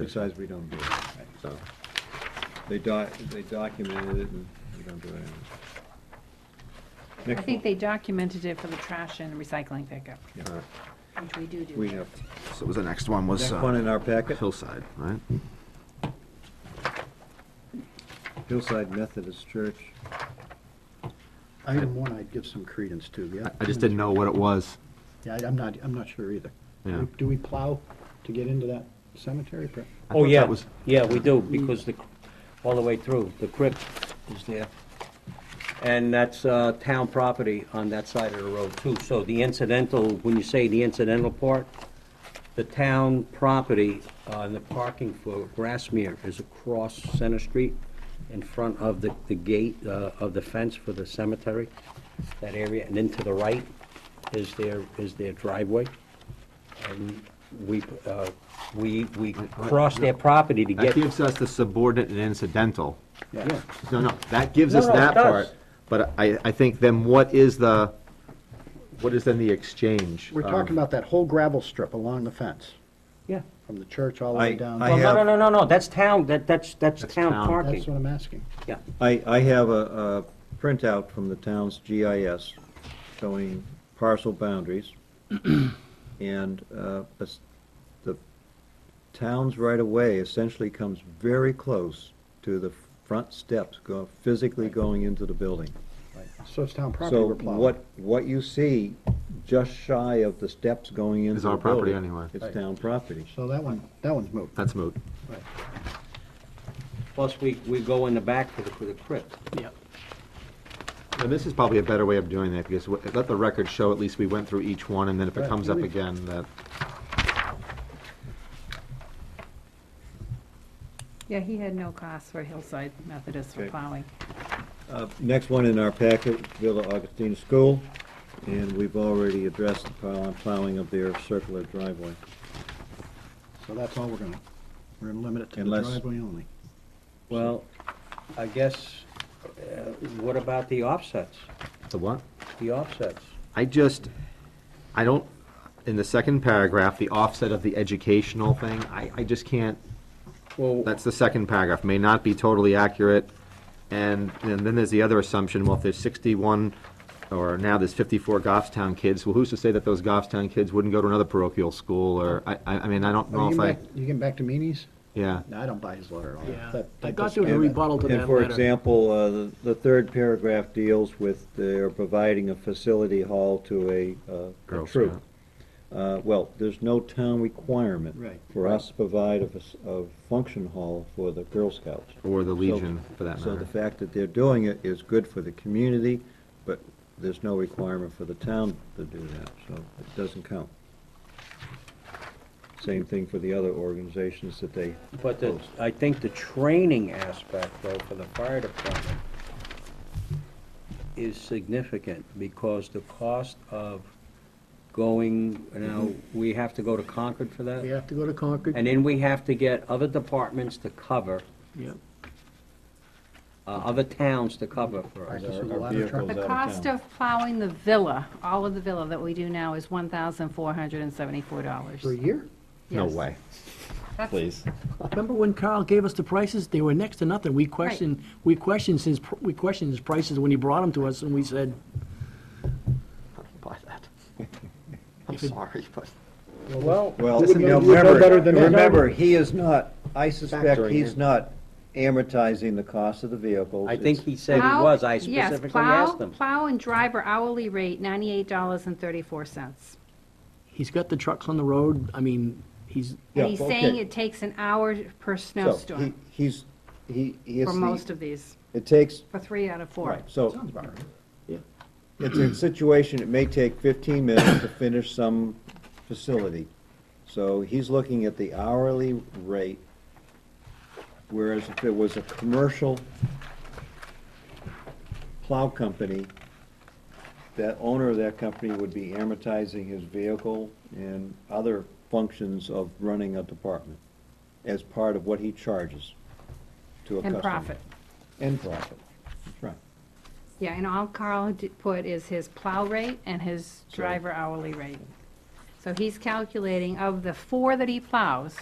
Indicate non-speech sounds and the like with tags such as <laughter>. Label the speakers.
Speaker 1: Besides, we don't do it.
Speaker 2: so.
Speaker 1: They doc, they documented it and we don't do it anymore.
Speaker 3: I
Speaker 1: Next
Speaker 3: think they documented it for the trash and recycling pickup,
Speaker 1: one.
Speaker 2: all right.
Speaker 3: which we do do.
Speaker 1: We have,
Speaker 2: So was the next one was
Speaker 1: next
Speaker 2: uh,
Speaker 1: one in our packet,
Speaker 2: Hillside, right?
Speaker 1: Hillside Methodist Church.
Speaker 4: Item one, I'd give some credence to, yeah.
Speaker 2: I, I just didn't know what it was.
Speaker 4: Yeah, I- I'm not, I'm not sure either. Do we-
Speaker 2: Yeah.
Speaker 4: Do we plow to get into that cemetery? Per-
Speaker 2: I
Speaker 5: Oh,
Speaker 2: thought
Speaker 5: yeah,
Speaker 2: that was-
Speaker 5: yeah, we do, because the, all the way through, the crypt is there. And that's uh, town property on that side of the road, too. So the incidental, when you say the incidental part, the town property uh, and the parking for Grassmere is across Center Street in front of the, the gate uh, of the fence for the cemetery, that area, and then to the right is their, is their driveway. And we, uh, we, we cross their property to
Speaker 2: That
Speaker 5: get.
Speaker 2: gives us the subordinate and incidental.
Speaker 5: Yeah.
Speaker 2: No, no, that gives
Speaker 5: No,
Speaker 2: us
Speaker 5: no, it
Speaker 2: that
Speaker 5: does.
Speaker 2: part. But I, I think then what is the, what is then the exchange? Um,
Speaker 4: We're
Speaker 1: Um,
Speaker 2: of-
Speaker 4: talking about that whole gravel strip along the fence,
Speaker 5: Yeah.
Speaker 4: from the church all the way
Speaker 1: I-
Speaker 4: down.
Speaker 1: I
Speaker 5: Well, no,
Speaker 1: have-
Speaker 5: no, no, no, no, that's town, that, that's, that's
Speaker 2: That's
Speaker 5: town
Speaker 2: town.
Speaker 4: That's
Speaker 5: parking.
Speaker 4: what I'm asking.
Speaker 5: Yeah,
Speaker 1: I, I have a, a printout from the town's GIS showing parcel
Speaker 4: <clears throat>
Speaker 1: boundaries. And, uh, es- the town's right-of-way essentially comes very close to the front steps, go, physically going into the building.
Speaker 4: So it's town property
Speaker 1: So
Speaker 4: we're plowing.
Speaker 1: what, what you see just shy of the steps going into
Speaker 2: Is
Speaker 1: the
Speaker 2: our property
Speaker 1: building,
Speaker 2: anyway.
Speaker 1: It's
Speaker 4: Right.
Speaker 1: town property.
Speaker 4: So that one, that one's moved.
Speaker 2: That's moot.
Speaker 4: Right.
Speaker 5: plus we, we go in the back for the, for the crypt.
Speaker 4: Yeah.
Speaker 2: And this is probably a better way of doing that, because w- let the record show, at least we went through each one, and then if it
Speaker 4: Right,
Speaker 2: comes up
Speaker 4: we-
Speaker 2: again, that,
Speaker 3: Yeah, he had no cost for Hillside Methodist for
Speaker 1: Okay.
Speaker 3: plowing.
Speaker 1: Uh, Next one in our packet, Villa Augustine School, and we've already addressed the plow- plowing of their circular driveway.
Speaker 4: So that's all we're gonna, we're gonna limit it to the
Speaker 1: Unless-
Speaker 4: driveway only.
Speaker 5: Well, I guess, uh, what about the offsets?
Speaker 2: the what?
Speaker 5: The offsets?
Speaker 2: I just, I don't, in the second paragraph, the offset of the educational thing, I, I just can't,
Speaker 5: Well,
Speaker 2: that's the second paragraph, may not be totally accurate. And, and then there's the other assumption, well, if there's sixty-one, or now there's fifty-four Goffstown kids, well, who's to say that those Goffstown kids wouldn't go to another parochial school, or, I, I, I mean, I don't
Speaker 4: Are
Speaker 2: know
Speaker 4: you
Speaker 2: if I,
Speaker 4: getting back, you getting back to meanies?
Speaker 2: yeah.
Speaker 4: No, I don't buy his letter at all.
Speaker 6: Yeah.
Speaker 4: That-
Speaker 6: I
Speaker 4: that
Speaker 6: got
Speaker 4: does-
Speaker 6: to a
Speaker 1: And-
Speaker 6: rebuttal to
Speaker 1: And
Speaker 6: that
Speaker 1: for
Speaker 6: letter.
Speaker 1: example, uh, the- the third paragraph deals with they're providing a facility hall to a, uh, a
Speaker 2: Girl
Speaker 1: troop.
Speaker 2: Scout.
Speaker 1: Uh, Well, there's no town requirement.
Speaker 4: Right.
Speaker 1: For us to provide a fac- a function hall for the Girl Scouts.
Speaker 2: Or the Legion,
Speaker 1: So-
Speaker 2: for that
Speaker 1: So the
Speaker 2: matter.
Speaker 1: fact that they're doing it is good for the community, but there's no requirement for the town to do that, so it doesn't count. Same thing for the other organizations that they
Speaker 5: But the,
Speaker 1: host.
Speaker 5: I think the training aspect, though, for the fire department is significant, because the cost of going, now, we have to go to Concord for
Speaker 6: We
Speaker 5: that?
Speaker 6: have to go to Concord.
Speaker 5: And then we have to get other departments to cover,
Speaker 6: Yeah.
Speaker 5: uh, other towns to cover for us.
Speaker 4: Practice with a
Speaker 1: Our- our
Speaker 4: lot of trouble.
Speaker 1: vehicles out
Speaker 3: The
Speaker 1: of
Speaker 3: cost
Speaker 1: town.
Speaker 3: of plowing the villa, all of the villa that we do now is one thousand four hundred and seventy-four dollars.
Speaker 4: For a year?
Speaker 2: No way. Please.
Speaker 6: Remember when Carl gave us the prices? They were next to nothing. We questioned, we questioned his, pr- we questioned his prices when he brought them to us, and we said,
Speaker 2: Buy that. I'm sorry, but.
Speaker 5: Well,
Speaker 1: Well,
Speaker 4: Listen,
Speaker 1: now
Speaker 4: you would know
Speaker 1: remember,
Speaker 4: better than that.
Speaker 1: remember, he is not, I suspect
Speaker 2: Factoring
Speaker 1: he's
Speaker 2: in.
Speaker 1: not amortizing the cost of the vehicles.
Speaker 5: I think
Speaker 1: It's-
Speaker 5: he said he
Speaker 3: Plow-
Speaker 5: was, I
Speaker 3: yes,
Speaker 5: specifically
Speaker 3: plow-
Speaker 5: asked him.
Speaker 3: Plow and driver hourly rate, ninety-eight dollars and thirty-four cents.
Speaker 6: he's got the trucks on the road. I mean, he's,
Speaker 1: Yeah,
Speaker 3: And he's saying
Speaker 1: okay.
Speaker 3: it takes an hour per
Speaker 1: So, he-
Speaker 3: snowstorm
Speaker 1: He's, he, he is
Speaker 3: for most
Speaker 1: the,
Speaker 3: of these,
Speaker 1: it takes,
Speaker 3: for three out of four.
Speaker 1: right, so
Speaker 4: Sounds about right.
Speaker 1: it's a situation, it may take 15 minutes to finish some facility. So he's looking at the hourly rate, whereas if it was a commercial plow company, that owner of that company would be amortizing his vehicle and other functions of running a department as part of what he charges to a customer.
Speaker 3: And profit.
Speaker 1: And profit, that's right.
Speaker 3: Yeah, and all Carl d- put is his plow rate and his
Speaker 1: So-
Speaker 3: driver hourly rate. So he's calculating of the four that he plows,